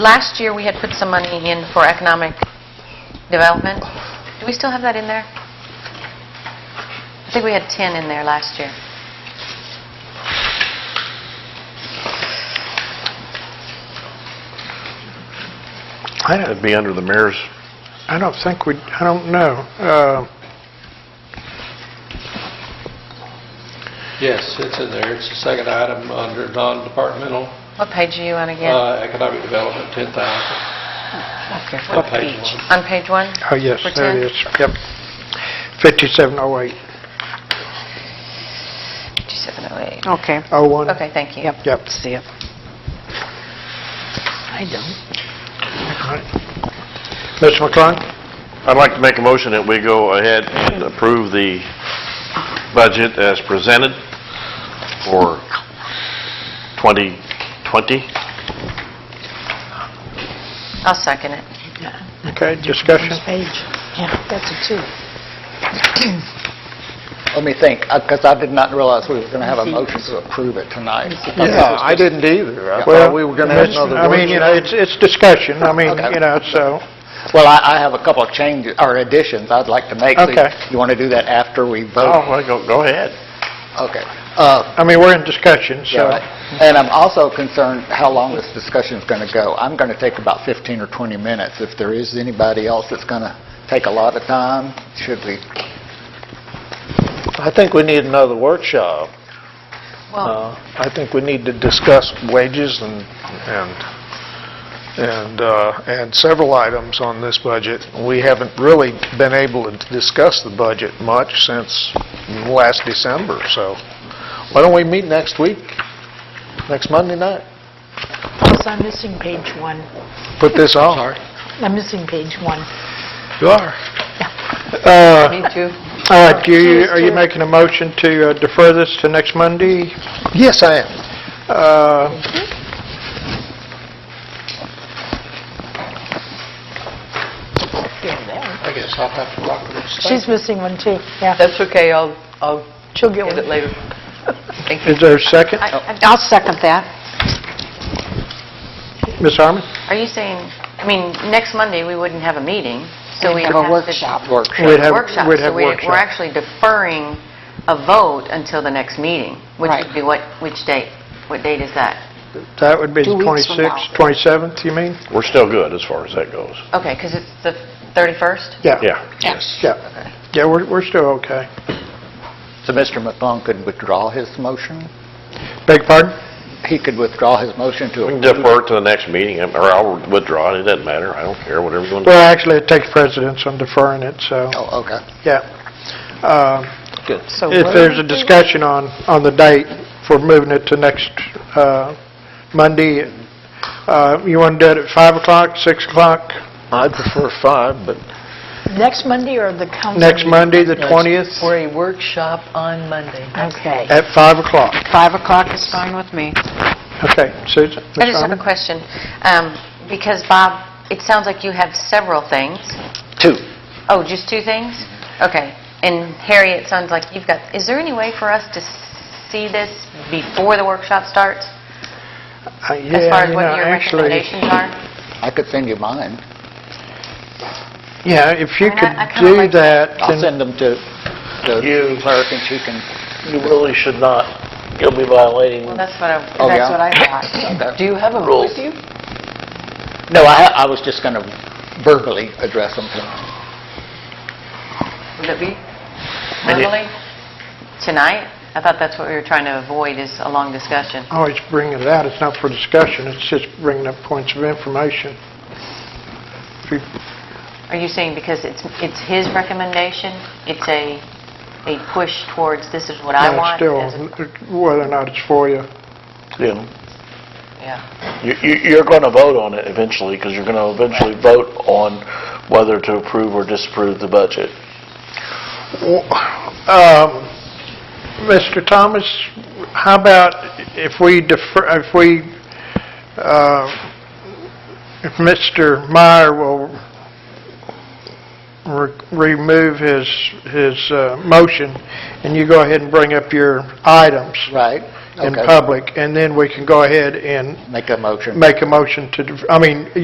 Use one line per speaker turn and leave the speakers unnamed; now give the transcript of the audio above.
Last year, we had put some money in for economic development. Do we still have that in there? I think we had 10 in there last year.
I think it'd be under the mayor's,
I don't think we, I don't know. Uh,
Yes, it's in there. It's the second item under non-departmental
What page are you on again?
uh, economic development, 10,000.
Okay.
What page?
On page one?
Oh, yes,
For
there
10?
it is. oh Yep. 5708,
5708.
Okay,
01.
Okay, thank you.
yep.
Yep.
See it. I don't.
Mr. McClung?
I'd like to make a motion that we go ahead and approve the budget as presented for 2020.
I'll second it.
Okay, discussion?
Page, yeah, that's a two.
Let me think, because I did not realize we were going to have a
Let me see.
motion to approve it tonight.
Yeah, I
didn't
either.
I thought we were gonna have another
I mean, you know, it's, it's discussion, I mean,
Okay.
you know, so,
Well, I I have a couple of changes, or additions I'd like to make.
Okay.
You want to do that after we vote?
Oh, well, go, go ahead.
Okay. Uh,
I mean, we're in discussion,
Yeah,
so.
right. And I'm also concerned how long this discussion's going to go. I'm going to take about 15 or 20 minutes. If there is anybody else that's going to take a lot of time, should we?
I think we need another workshop. Uh,
Well,
I think we need to discuss wages and, and, and uh, and several items on this budget. We haven't really been able to discuss the budget much since last December, so why don't we meet next week, next Monday night?
Plus, I'm missing page one.
Put this on.
I'm missing page one.
You are.
Uh,
me too.
All right, do you, are you making a motion to uh, defer this to next Monday?
Yes, I am.
Uh,
Yeah, there.
I guess I'll have to talk to them.
She's missing one too, yeah.
That's okay, I'll, I'll
She'll get
get it
one.
later.
Thank you.
Is there a second?
I- I-
I'll second that.
Ms. Harmon?
Are you saying, I mean, next Monday, we wouldn't have a meeting, so we
We'd
have
have
to...
a workshop.
Workshop.
We'd have-
Workshop,
we'd
so
have
we-
workshop.
we're actually deferring a vote until the next meeting, which
Right.
would be what, which date? What date is that?
That would be the
Two weeks from
26th, 27th, you mean?
We're still good as far as that goes.
Okay, because it's the 31st?
Yeah.
Yes.
Yeah, yeah, we're, we're still okay.
So Mr. McClung could withdraw his motion?
Beg pardon?
He could withdraw his motion to...
We can defer it to the next meeting, or I'll withdraw it, it doesn't matter, I don't care, whatever you want.
Well, actually, it takes precedence on deferring it, so,
Oh, okay.
yeah. Um,
So
If
what-
there's a discussion on, on the date for moving it to next uh, Monday, uh, you want to do it at 5 o'clock, 6 o'clock,
I prefer five, but
Next Monday or the council?
next
meeting?
Monday, the 20th,
For a workshop on Monday.
Okay.
at 5 o'clock?
5 o'clock is fine with me.
Okay, Susan?
I
Ms.
just have a
Harmon?
question, um, because Bob, it sounds like you have several things.
Two.
Oh, just two things? Okay. And Harry, it sounds like you've got, is there any way for us to see this before the workshop starts?
Uh,
As far
yeah,
as
you
what
know,
your
actually-
recommendations are?
I could send you mine.
Yeah, if
I
you
mean, I-
could
I kinda
do
like
that,
I'll
then,
send them to the
You-
clerk and she can...
you really should not. You'll be violating
Well, that's what I,
Oh,
That's
yeah?
what I thought.
Okay.
Do you have them
Rules.
with you?
No, I I was just going to verbally address them tonight.
would it be verbally? Tonight? I thought that's what we were trying to avoid, is a long discussion.
always bring it out, it's not for discussion, it's just bringing up points of information. If you-
Are you saying because it's, it's his recommendation, it's a, a push towards, this is what I
No,
want? as a-
Still, whether or not it's for you.
you know,
Yeah,
you- you- you're going to vote on it eventually, because you're going to eventually vote on whether to approve or disapprove the budget.
Um, Mr. Thomas, how about if we defer, if we, uh, if Mr. Meyer will re- remove his, his uh, motion, and you go ahead and bring up your items,
Right?
in
Okay.
public, and then we can go ahead and
Make a motion.
make a motion to, I mean,